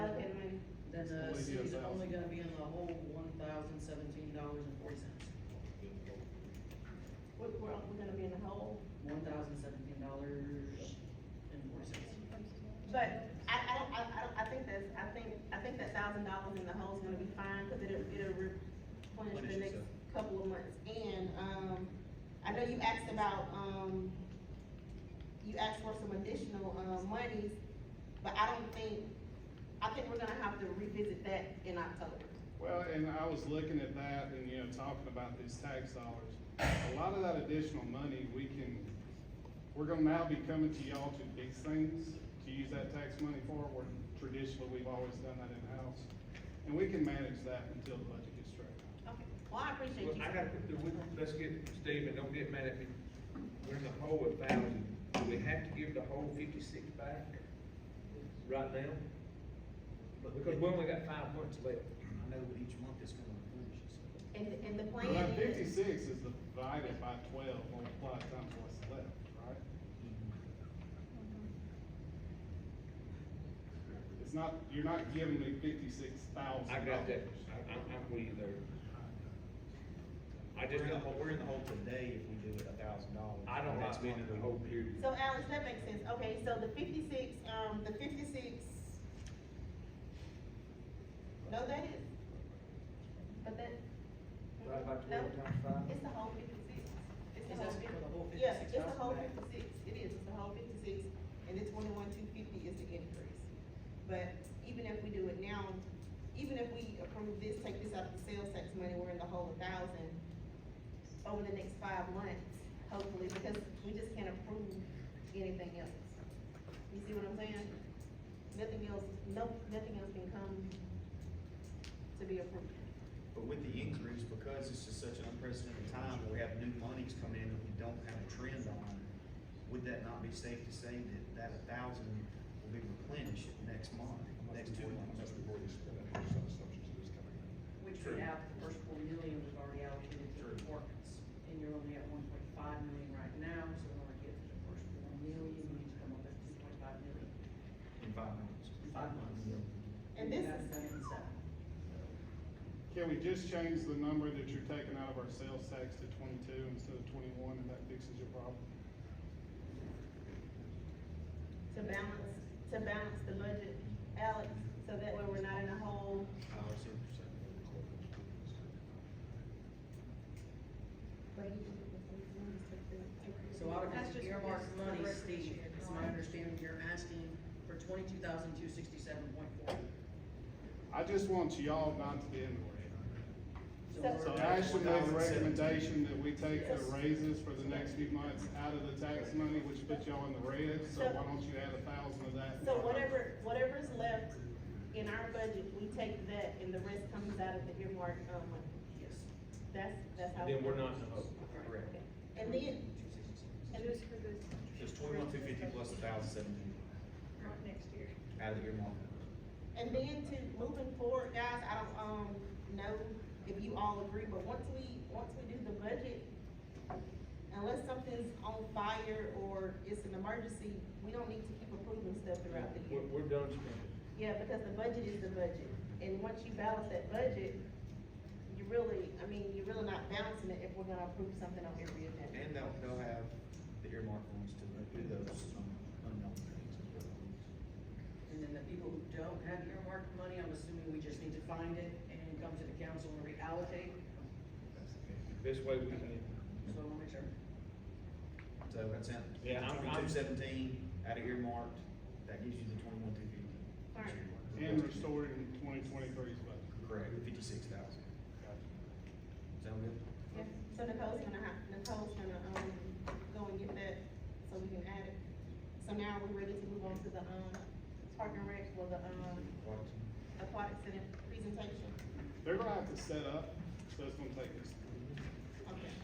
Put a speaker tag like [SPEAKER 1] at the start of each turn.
[SPEAKER 1] uh, see is
[SPEAKER 2] CSL.
[SPEAKER 1] only gonna be in the hole one thousand seventeen dollars and forty cents.
[SPEAKER 3] We're, we're, we're gonna be in the hole.
[SPEAKER 1] One thousand seventeen dollars and forty cents.
[SPEAKER 3] But I, I don't, I, I don't, I think that's, I think, I think that thousand dollars in the hole is gonna be fine, cause it'll, it'll replenish
[SPEAKER 4] Replenish
[SPEAKER 3] the next
[SPEAKER 4] itself.
[SPEAKER 3] couple of months. And, um, I know you asked about, um, you asked for some additional, uh, monies, but I don't think, I think we're gonna have to revisit that in October.
[SPEAKER 2] Well, and I was looking at that and, you know, talking about these tax dollars. A lot of that additional money, we can, we're gonna now be coming to y'all to fix things, to use that tax money for, where traditionally, we've always done that in-house. And we can manage that until the budget gets straight out.
[SPEAKER 3] Okay. Well, I appreciate you.
[SPEAKER 5] Well, I got, let's get, Stephen, don't get mad at me, we're in the hole a thousand, do we have to give the whole fifty-six back right now? Because we only got five months left.
[SPEAKER 4] I know, but each month it's gonna replenish itself.
[SPEAKER 3] And, and the plan
[SPEAKER 2] Well, that
[SPEAKER 3] is,
[SPEAKER 2] fifty-six is divided by twelve, multiplied times what's left, right? It's not, you're not giving me fifty-six thousand
[SPEAKER 5] I
[SPEAKER 2] dollars.
[SPEAKER 5] got that, I, I'm, I'm with you there. I just,
[SPEAKER 4] We're in the hole,
[SPEAKER 5] don't-
[SPEAKER 4] we're in the hole today if we do it a thousand dollars.
[SPEAKER 5] I don't
[SPEAKER 4] Next
[SPEAKER 5] like being in
[SPEAKER 4] month
[SPEAKER 5] the
[SPEAKER 4] we-
[SPEAKER 5] whole period.
[SPEAKER 3] so Alex, that makes sense, okay, so the fifty-six, um, the fifty-six, no, that is, but that.
[SPEAKER 5] Right by
[SPEAKER 3] No,
[SPEAKER 5] 12 times five?
[SPEAKER 3] It's the whole fifty-six. It's
[SPEAKER 1] Is
[SPEAKER 3] the
[SPEAKER 1] that
[SPEAKER 3] whole
[SPEAKER 1] for the whole
[SPEAKER 3] fifty- Yeah,
[SPEAKER 1] 56,000
[SPEAKER 3] it's the whole
[SPEAKER 1] back?
[SPEAKER 3] fifty-six, it is, it's the whole fifty-six, and the twenty-one, two fifty is the increase. But even if we do it now, even if we approve this, take this out of the sales tax money, we're in the whole a thousand over the next five months, hopefully, because we just can't approve anything else. You see what I'm saying? Nothing else, no, nothing else can come to be approved.
[SPEAKER 4] But with the increase, because this is such an unprecedented time, we have new monies coming in that we don't have a trend on, would that not be safe to say that that a thousand will be replenished next month, next two months?
[SPEAKER 1] Which we have, the first four million was already allocated to departments, and you're only at one point five million right now, so in order to get to the first four million, you need to come up with two point five million.
[SPEAKER 4] In five months.
[SPEAKER 1] Five months.
[SPEAKER 3] And this
[SPEAKER 1] That's
[SPEAKER 3] is-
[SPEAKER 1] done in seven.
[SPEAKER 2] Can we just change the number that you're taking out of our sales tax to twenty-two instead of twenty-one, and that fixes your problem?
[SPEAKER 3] to balance, to balance the budget, Alex, so that way we're not in a hole.
[SPEAKER 1] So out of
[SPEAKER 6] That's
[SPEAKER 1] this
[SPEAKER 6] just
[SPEAKER 1] earmarked
[SPEAKER 6] what
[SPEAKER 1] money,
[SPEAKER 6] this-
[SPEAKER 1] Steve, it's my understanding you're asking for twenty-two thousand two sixty-seven point four.
[SPEAKER 2] I just want y'all not to be in the
[SPEAKER 3] So-
[SPEAKER 2] red. So I should make a recommendation that we take the raises for the next few months out of the tax money, which puts y'all in the red, so why don't you add a thousand of that?
[SPEAKER 3] So whatever, whatever is left in our budget, we take that and the rest comes out of the earmark, um, money.
[SPEAKER 1] Yes.
[SPEAKER 3] that's, that's how.
[SPEAKER 5] Then we're not in the hole.
[SPEAKER 4] Correct.
[SPEAKER 3] Okay. And then,
[SPEAKER 6] And those for this.
[SPEAKER 4] It's twenty-one, two fifty plus a thousand seventeen
[SPEAKER 6] Not next year.
[SPEAKER 4] out of your month.
[SPEAKER 3] and then to moving forward, guys, I don't, um, know if you all agree, but once we, once we do the budget, unless something's on fire or it's an emergency, we don't need to keep approving stuff throughout the year.
[SPEAKER 5] We're, we're done spending.
[SPEAKER 3] Yeah, because the budget is the budget, and once you balance that budget, you really, I mean, you're really not balancing it if we're gonna approve something on every agenda.
[SPEAKER 4] And they'll, they'll have the earmark ones to do those unknown things. as well.
[SPEAKER 1] And then the people who don't have earmarked money, I'm assuming we just need to find it and come to the council and reallocate,
[SPEAKER 5] Best way we can.
[SPEAKER 1] so I'm gonna make sure.
[SPEAKER 4] So that's it.
[SPEAKER 5] Yeah, I'm- I'm-
[SPEAKER 4] Twenty-two seventeen out of earmarked, that gives you the twenty-one, two fifty.
[SPEAKER 3] Alright.
[SPEAKER 2] And restored in twenty twenty-three's budget.
[SPEAKER 4] Correct, fifty-six thousand. Sound good?
[SPEAKER 3] Yeah, So Nicole's gonna have, Nicole's gonna, um, go and get that, so we can add it. So now we're ready to move on to the, um, park and rec, or the, um,
[SPEAKER 4] Watson?
[SPEAKER 3] aquatic center presentation.
[SPEAKER 2] They're gonna have to set up, so it's gonna take us